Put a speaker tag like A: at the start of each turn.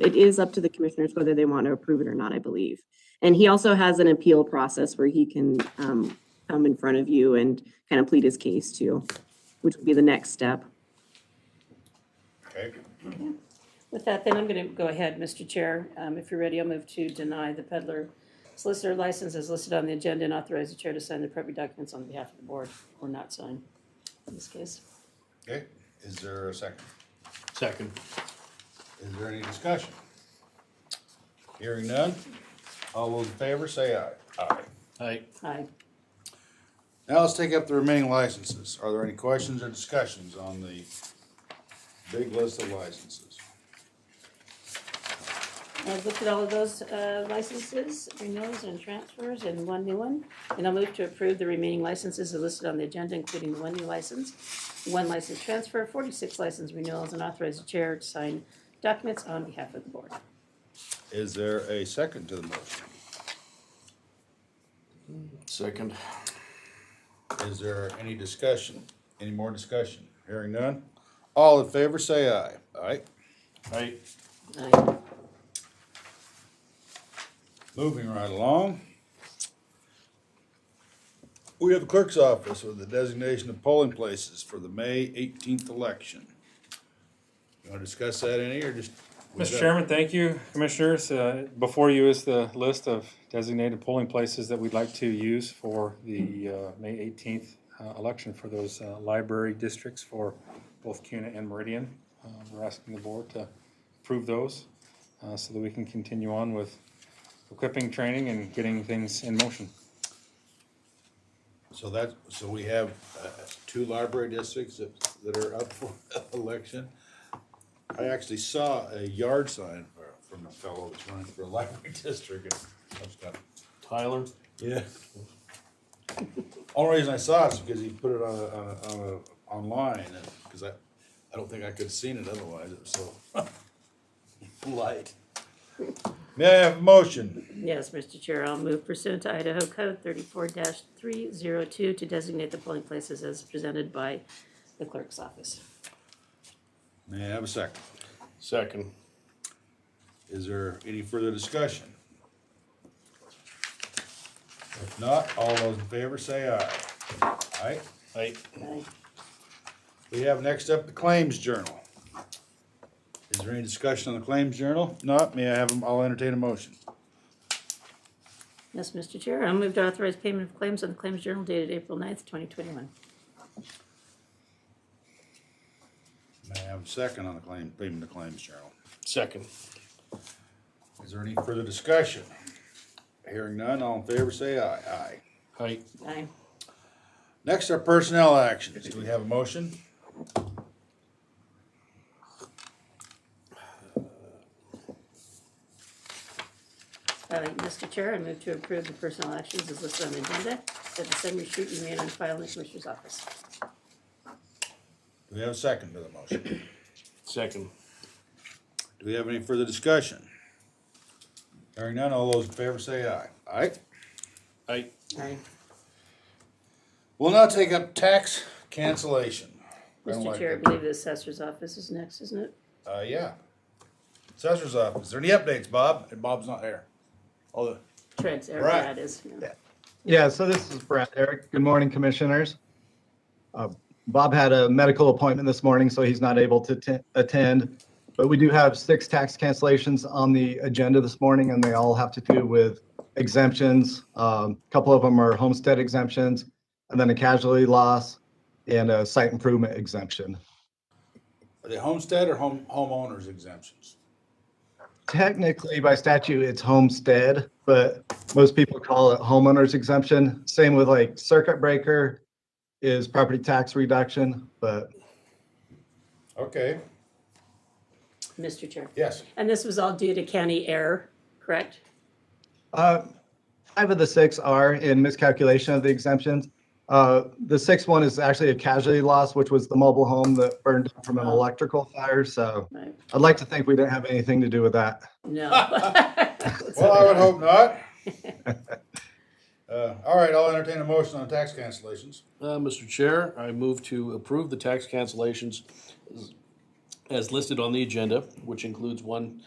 A: it is up to the commissioners whether they want to approve it or not, I believe. And he also has an appeal process where he can um, come in front of you and kind of plead his case too, which would be the next step.
B: Okay.
C: With that, then I'm going to go ahead, Mr. Chair. Um, If you're ready, I'll move to deny the peddler solicitor license as listed on the agenda and authorize the chair to sign the appropriate documents on behalf of the board, or not sign in this case.
B: Okay, is there a second?
D: Second.
B: Is there any discussion? Hearing none, all those in favor say aye. Aye.
D: Aye.
C: Aye.
B: Now let's take up the remaining licenses. Are there any questions or discussions on the big list of licenses?
C: I've looked at all of those uh, licenses, renewals and transfers, and one new one. And I'll move to approve the remaining licenses as listed on the agenda, including the one new license, one license transfer, 46 license renewals, and authorize the chair to sign documents on behalf of the board.
B: Is there a second to the motion?
D: Second.
B: Is there any discussion? Any more discussion? Hearing none, all in favor say aye. Aye.
D: Aye.
C: Aye.
B: Moving right along. We have the clerk's office with the designation of polling places for the May eighteenth election. You wanna discuss that any, or just?
E: Mr. Chairman, thank you, Commissioners. Uh, Before you is the list of designated polling places that we'd like to use for the uh, May 18th uh, election for those uh, library districts for both CUNA and Meridian. Uh, We're asking the board to approve those uh, so that we can continue on with equipping, training, and getting things in motion.
B: So that, so we have, uh, two library districts that, that are up for election. I actually saw a yard sign for- from a fellow that's running for a library district, and I was kinda
D: Tyler.
B: Yeah. Only reason I saw it is because he put it on, a- on, a- on a, online, and, cause I, I don't think I could've seen it otherwise, it was so light. May I have a motion?
C: Yes, Mr. Chair, I'll move pursuant to Idaho Code thirty-four three zero two to designate the polling places as presented by the clerk's office.
B: May I have a second?
D: Second.
B: Is there any further discussion? If not, all those in favor say aye. Aye,
D: Aye.
C: Aye.
B: we have next up the claims journal. Is there any discussion on the claims journal? Not, may I have, them? I'll entertain a motion.
C: Yes, Mr. Chair, I'll move to authorize payment of claims on the Claims Journal dated April 9th, twenty twenty-one.
B: May I have a second on the claim, payment of claims journal?
D: Second.
B: Is there any further discussion? Hearing none, all in favor say aye. Aye.
D: Aye.
C: Aye.
B: Next are personnel actions. Do we have a motion?
C: Uh, Mr. Chair, I move to approve the personnel actions as listed on the agenda, that the summary sheet be made on file in the Commissioner's office.
B: Do we have a second to the motion?
D: Second.
B: Do we have any further discussion? Hearing none, all those in favor say aye. Aye.
D: Aye.
C: Aye.
B: We'll now take up tax cancellation. I don't
C: Mr.
B: like
C: Chair, I
B: that.
C: believe the assessor's office is next, isn't it?
B: Uh, yeah. Assessor's office. Is there any updates, Bob? And Bob's not here. All the,
C: Trent's, or
B: Right.
C: that is, yeah.
F: Yeah, so this is Brett. Eric, good morning, Commissioners. Uh, Bob had a medical appointment this morning, so he's not able to atten- attend. But we do have six tax cancellations on the agenda this morning, and they all have to do with exemptions. A Couple of them are homestead exemptions, and then a casualty loss and a site improvement exemption.
B: are they homestead or home, homeowners exemptions?
F: Technically, by statute, it's homestead, but most people call it homeowner's exemption. Same with like circuit breaker is property tax reduction, but
B: Okay,
C: Mr. Chair.
B: yes.
C: And this was all due to county error, correct?
F: uh, five of the six are in miscalculation of the exemptions. Uh, The sixth one is actually a casualty loss, which was the mobile home that burned down from an electrical fire. So
C: Right.
F: I'd like to think we didn't have anything to do with that.
C: No.
B: Well, I would hope not. Uh, all right, I'll entertain a motion on tax cancellations.
D: Uh, Mr. Chair, I move to approve the tax cancellations as- as listed on the agenda, which includes one